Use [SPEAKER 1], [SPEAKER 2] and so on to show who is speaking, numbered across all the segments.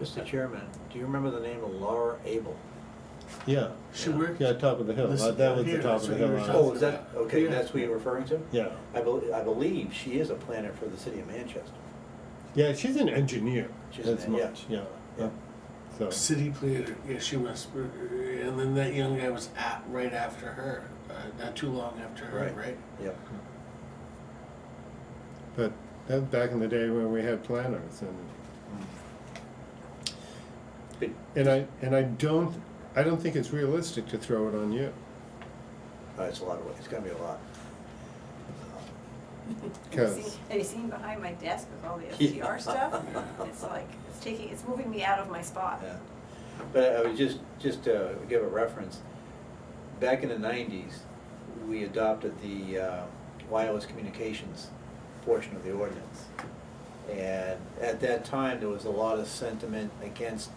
[SPEAKER 1] Mr. Chairman, do you remember the name of Laura Abel?
[SPEAKER 2] Yeah,
[SPEAKER 3] She worked,
[SPEAKER 2] yeah, top of the hill, Uh, that was the
[SPEAKER 3] Here,
[SPEAKER 2] top
[SPEAKER 3] that's
[SPEAKER 2] of the
[SPEAKER 3] what you
[SPEAKER 2] hill. uh,
[SPEAKER 3] were
[SPEAKER 1] Oh, is that, okay,
[SPEAKER 3] Yeah.
[SPEAKER 1] that's who you're referring to?
[SPEAKER 2] Yeah,
[SPEAKER 1] I believe, I believe she is a planner for the city of Manchester.
[SPEAKER 2] yeah, she's an engineer,
[SPEAKER 1] She's an
[SPEAKER 2] that's
[SPEAKER 1] en- yeah.
[SPEAKER 2] much, yeah,
[SPEAKER 1] Yeah.
[SPEAKER 2] so,
[SPEAKER 3] city planner, yeah, she was, and then that young guy was at, right after her, uh, not too long after her,
[SPEAKER 1] Right.
[SPEAKER 3] right?
[SPEAKER 1] Yep.
[SPEAKER 2] but that was back in the day when we had planners and.
[SPEAKER 1] But-
[SPEAKER 2] And I, and I don't, I don't think it's realistic to throw it on you,
[SPEAKER 1] Uh, It's a lot of work, it's gonna be a lot.
[SPEAKER 4] Have you
[SPEAKER 2] cause,
[SPEAKER 4] seen- have you seen behind my desk with all the
[SPEAKER 1] Yeah.
[SPEAKER 4] FTR stuff? It's like, it's taking, it's moving me out of my spot.
[SPEAKER 1] Yeah. But I would just, just to give a reference, back in the nineties, we adopted the uh, wireless communications portion of the ordinance. And at that time, there was a lot of sentiment against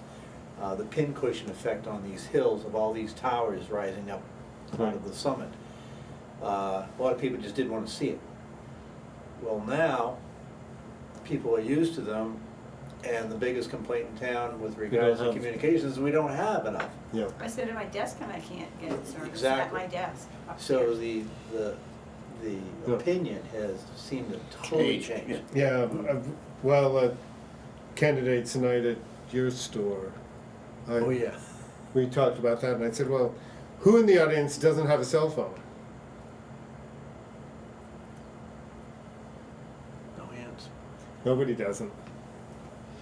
[SPEAKER 1] uh, the pincushion effect on these hills of all these towers rising up out of the summit. Uh, A lot of people just didn't want to see it. Well, now, people are used to them, and the biggest complaint in town with regards to
[SPEAKER 2] have-
[SPEAKER 1] communications, we don't have enough.
[SPEAKER 2] yeah,
[SPEAKER 4] I sit at my desk and I can't get service at
[SPEAKER 1] Exactly.
[SPEAKER 4] my desk.
[SPEAKER 1] So
[SPEAKER 4] upstairs.
[SPEAKER 1] the, the, the
[SPEAKER 2] Yeah.
[SPEAKER 1] opinion has seemed to totally
[SPEAKER 3] Change,
[SPEAKER 1] change.
[SPEAKER 3] yeah.
[SPEAKER 2] yeah, uh, well, uh, candidates tonight at your store. I-
[SPEAKER 1] Oh, yeah.
[SPEAKER 2] we talked about that, and I said, "Well, who in the audience doesn't have a cell phone?"
[SPEAKER 1] No hands.
[SPEAKER 2] Nobody doesn't.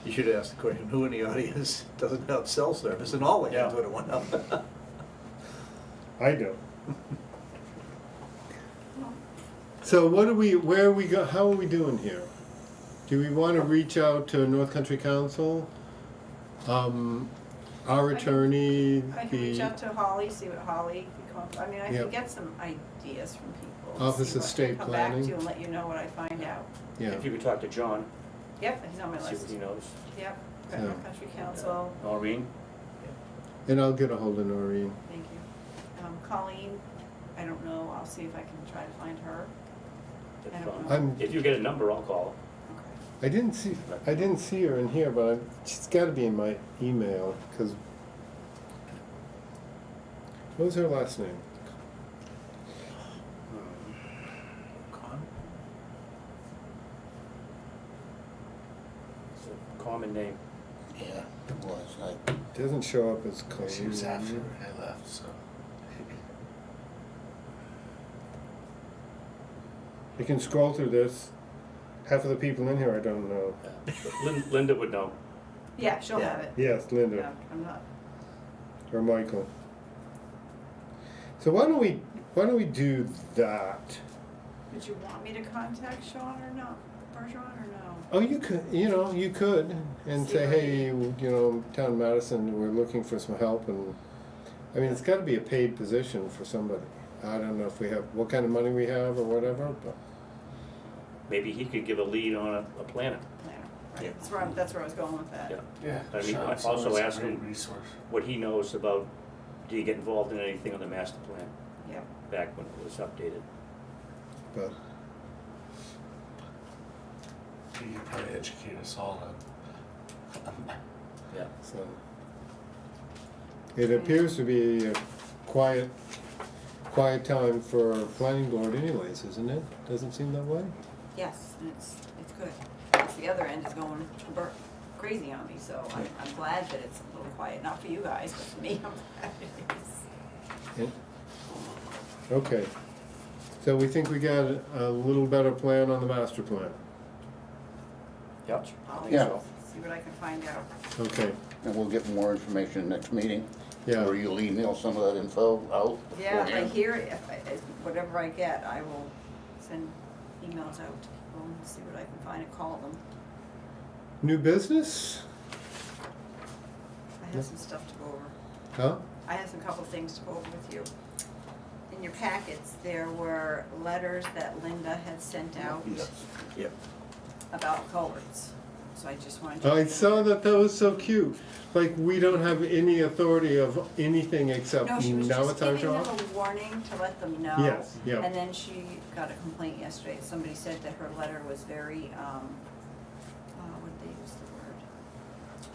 [SPEAKER 1] You should ask the question, who in the audience doesn't have cell service? And all the hands
[SPEAKER 3] Yeah.
[SPEAKER 1] would have went up.
[SPEAKER 2] I don't.
[SPEAKER 4] Well,
[SPEAKER 2] So, what are we? Where are we go? How are we doing here? Do we want to reach out to North Country Council, um, our
[SPEAKER 4] I can-
[SPEAKER 2] attorney?
[SPEAKER 4] I can reach
[SPEAKER 2] the-
[SPEAKER 4] out to Holly, see what Holly can come up, I mean, I
[SPEAKER 2] Yeah.
[SPEAKER 4] can get some ideas from people. and
[SPEAKER 2] Office
[SPEAKER 4] see
[SPEAKER 2] of
[SPEAKER 4] what-
[SPEAKER 2] State
[SPEAKER 4] Come back
[SPEAKER 2] Planning.
[SPEAKER 4] to you and let you know what I find out.
[SPEAKER 2] yeah.
[SPEAKER 5] If you could talk to John,
[SPEAKER 4] Yep, he's on my
[SPEAKER 5] see what
[SPEAKER 4] list.
[SPEAKER 5] he knows.
[SPEAKER 4] Yep,
[SPEAKER 2] Yeah.
[SPEAKER 4] Grand Country Council,
[SPEAKER 5] Maureen?
[SPEAKER 2] And I'll get a hold of Noreen.
[SPEAKER 4] thank you. Um, Colleen, I don't know, I'll see if I can try to find her.
[SPEAKER 5] if,
[SPEAKER 4] I don't
[SPEAKER 5] um,
[SPEAKER 4] know.
[SPEAKER 2] I'm.
[SPEAKER 5] If you get a number, I'll call.
[SPEAKER 4] Okay.
[SPEAKER 2] I didn't see. I didn't see her in here, but she's got to be in my email because. What was her last name?
[SPEAKER 1] Con-
[SPEAKER 5] It's a common name.
[SPEAKER 3] Yeah, it was, I,
[SPEAKER 2] Doesn't show up as.
[SPEAKER 3] She was
[SPEAKER 2] Colleen.
[SPEAKER 3] after I left, so.
[SPEAKER 2] You can scroll through this. Half of the people in here I don't know.
[SPEAKER 5] Lin- Linda would know.
[SPEAKER 4] Yeah, she'll
[SPEAKER 1] Yeah.
[SPEAKER 4] have it.
[SPEAKER 2] Yes,
[SPEAKER 4] Yeah,
[SPEAKER 2] Linda
[SPEAKER 4] I'm not,
[SPEAKER 2] or Michael. So why don't we why don't we do that?
[SPEAKER 4] would you want me to contact Sean or not, Bergeron or no?
[SPEAKER 2] Oh, you could you know you could and
[SPEAKER 4] See
[SPEAKER 2] say
[SPEAKER 4] what
[SPEAKER 2] hey you know Town of Madison we're looking for some help and I mean it's got to be a paid position for somebody. I don't know if we have what kind of money we have or whatever, but
[SPEAKER 5] Maybe he could give a lead on a, a planner.
[SPEAKER 4] Planner,
[SPEAKER 1] Yeah.
[SPEAKER 4] right, that's where, I'm- that's where I was going with that.
[SPEAKER 5] Yeah.
[SPEAKER 3] Yeah.
[SPEAKER 5] I mean, I
[SPEAKER 3] Sean's
[SPEAKER 5] also
[SPEAKER 3] always a
[SPEAKER 5] asked
[SPEAKER 3] great
[SPEAKER 5] him-
[SPEAKER 3] Resource.
[SPEAKER 5] What he knows about, do you get involved in anything on the master plan
[SPEAKER 4] Yep,
[SPEAKER 5] back when it was updated?
[SPEAKER 2] but
[SPEAKER 3] He could probably educate us all on.
[SPEAKER 5] Yeah.
[SPEAKER 2] so it appears to be a quiet quiet time for planning board anyways, isn't it? Doesn't seem that way.
[SPEAKER 4] yes, and it's, it's good. 'Cause The other end is going ber- crazy on me, so I'm, I'm glad that it's a little quiet, not for you guys, but for me, I'm glad it is.
[SPEAKER 2] Yeah. Okay, so we think we got a- a little better plan on the master plan.
[SPEAKER 5] Yep.
[SPEAKER 4] I'll
[SPEAKER 6] Yeah.
[SPEAKER 4] See what I can find out.
[SPEAKER 2] Okay,
[SPEAKER 6] And we'll get more information next meeting.
[SPEAKER 2] Yeah.
[SPEAKER 6] Or you'll email some of that info out.
[SPEAKER 4] Yeah, if I
[SPEAKER 6] beforehand.
[SPEAKER 4] hear, it, if I, if- whatever I get, I will send emails out to people and see what I can find and call them.
[SPEAKER 2] new business?
[SPEAKER 4] I have some stuff to go over.
[SPEAKER 2] Huh?
[SPEAKER 4] I have some couple things to go over with you. In your packets, there were letters that Linda had sent out
[SPEAKER 6] Yes.
[SPEAKER 1] Yep.
[SPEAKER 4] about culverts, so I just wanted to.
[SPEAKER 2] I saw that, that was so cute, like, we don't have any authority of anything except
[SPEAKER 4] No, she was
[SPEAKER 2] now
[SPEAKER 4] just
[SPEAKER 2] it's our
[SPEAKER 4] giving them
[SPEAKER 2] job.
[SPEAKER 4] a warning to let them know.
[SPEAKER 2] Yes, yeah.
[SPEAKER 4] And then she got a complaint yesterday, somebody said that her letter was very, um,